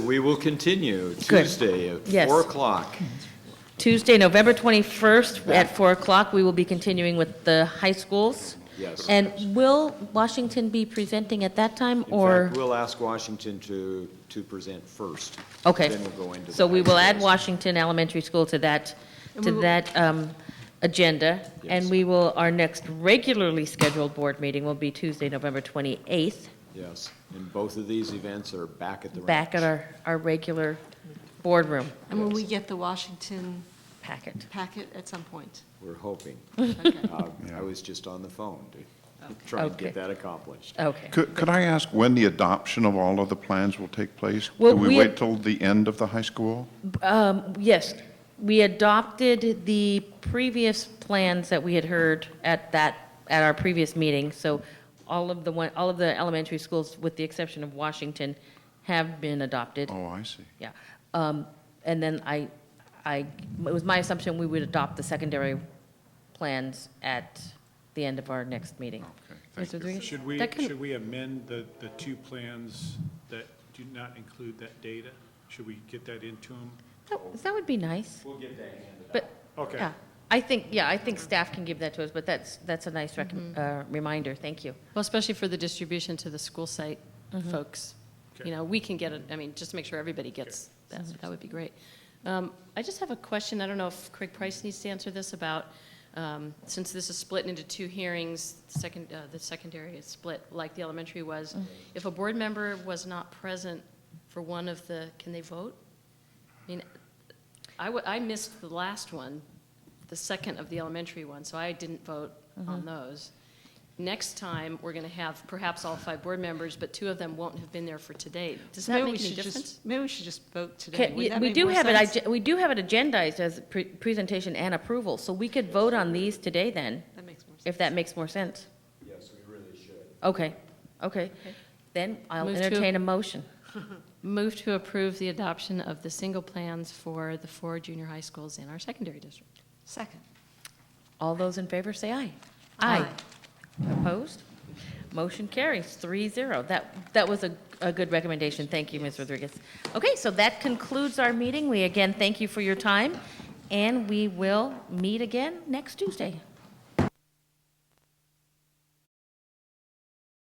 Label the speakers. Speaker 1: We will continue
Speaker 2: Good.
Speaker 1: Tuesday at
Speaker 2: Yes.
Speaker 1: 4 o'clock.
Speaker 2: Tuesday, November 21st, at 4 o'clock, we will be continuing with the high schools.
Speaker 1: Yes.
Speaker 2: And will Washington be presenting at that time,
Speaker 1: In
Speaker 2: or?
Speaker 1: fact, we'll ask Washington to, to present first.
Speaker 2: Okay.
Speaker 1: Then we'll go into. the
Speaker 2: So we will add
Speaker 1: details.
Speaker 2: Washington Elementary School to that,
Speaker 3: And
Speaker 2: to
Speaker 3: we will-
Speaker 2: that um, agenda. And
Speaker 1: Yes.
Speaker 2: we will, our next regularly scheduled board meeting will be Tuesday, November 28th,
Speaker 1: Yes, and both of these events are back at the ranch.
Speaker 2: back at our, our regular boardroom
Speaker 3: And will we get the Washington
Speaker 2: packet.
Speaker 3: packet at some point?
Speaker 1: We're hoping.
Speaker 3: Okay.
Speaker 1: Uh, I was just on the phone to try and get
Speaker 2: Okay.
Speaker 1: that accomplished.
Speaker 2: Okay.
Speaker 4: Could, could I ask when the adoption of all of the plans will take place?
Speaker 2: Well,
Speaker 4: Do we
Speaker 2: we-
Speaker 4: wait till the end of the high school?
Speaker 2: Um, Yes, we adopted the previous plans that we had heard at that, at our previous meeting. So all of the one, all of the elementary schools, with the exception of Washington, have been adopted.
Speaker 4: Oh, I see.
Speaker 2: Yeah. Um, And then I, I, it was my assumption we would adopt the secondary plans at the end of our next meeting.
Speaker 4: Okay,
Speaker 2: Ms.
Speaker 4: Oh, thank you.
Speaker 2: Rodriguez?
Speaker 5: Should we,
Speaker 2: That kind of-
Speaker 5: should we amend the, the two plans that do not include that data? Should we get that into them?
Speaker 2: That- That would be nice. We'll get that handed But,
Speaker 5: Okay.
Speaker 2: yeah, I think, yeah, I think staff can give that to us, but that's, that's a nice rec- uh, reminder, thank you.
Speaker 6: Well, especially for the distribution to the school site folks.
Speaker 5: Okay.
Speaker 6: You know, we can get it, I mean, just to make sure everybody gets that, that would be great. Um, I just have a question, I don't know if Craig Price needs to answer this about, um, since this is split into two hearings, second, uh, the secondary is split like the elementary was. If a board member was not present for one of the, can they vote? I mean, I wa- I missed the last one, the second of the elementary one, so I didn't vote on those. Next time, we're going to have perhaps all five board members, but two of them won't have been there for today. Does that
Speaker 3: Maybe we
Speaker 6: make any
Speaker 3: should just-
Speaker 6: difference?
Speaker 3: Maybe we should just vote today.
Speaker 2: Okay,
Speaker 3: Would
Speaker 2: yeah,
Speaker 3: that
Speaker 2: We
Speaker 3: make
Speaker 2: do
Speaker 3: more
Speaker 2: have it,
Speaker 3: sense?
Speaker 2: ag- we do have it agendized as pre- presentation and approval, so we could vote on these today then,
Speaker 3: That makes more sense.
Speaker 2: if that makes more sense. Yes, we really should. Okay, okay. Then I'll
Speaker 6: Move to-
Speaker 2: entertain a motion.
Speaker 6: Move to approve the adoption of the single plans for the four junior high schools in our secondary district.
Speaker 3: Second.
Speaker 2: All those in favor say aye.
Speaker 3: Aye.
Speaker 2: Opposed? Motion carries three zero. That, that was a, a good recommendation. Thank you, Ms. Rodriguez. Okay, so that concludes our meeting. We again thank you for your time, and we will meet again next Tuesday.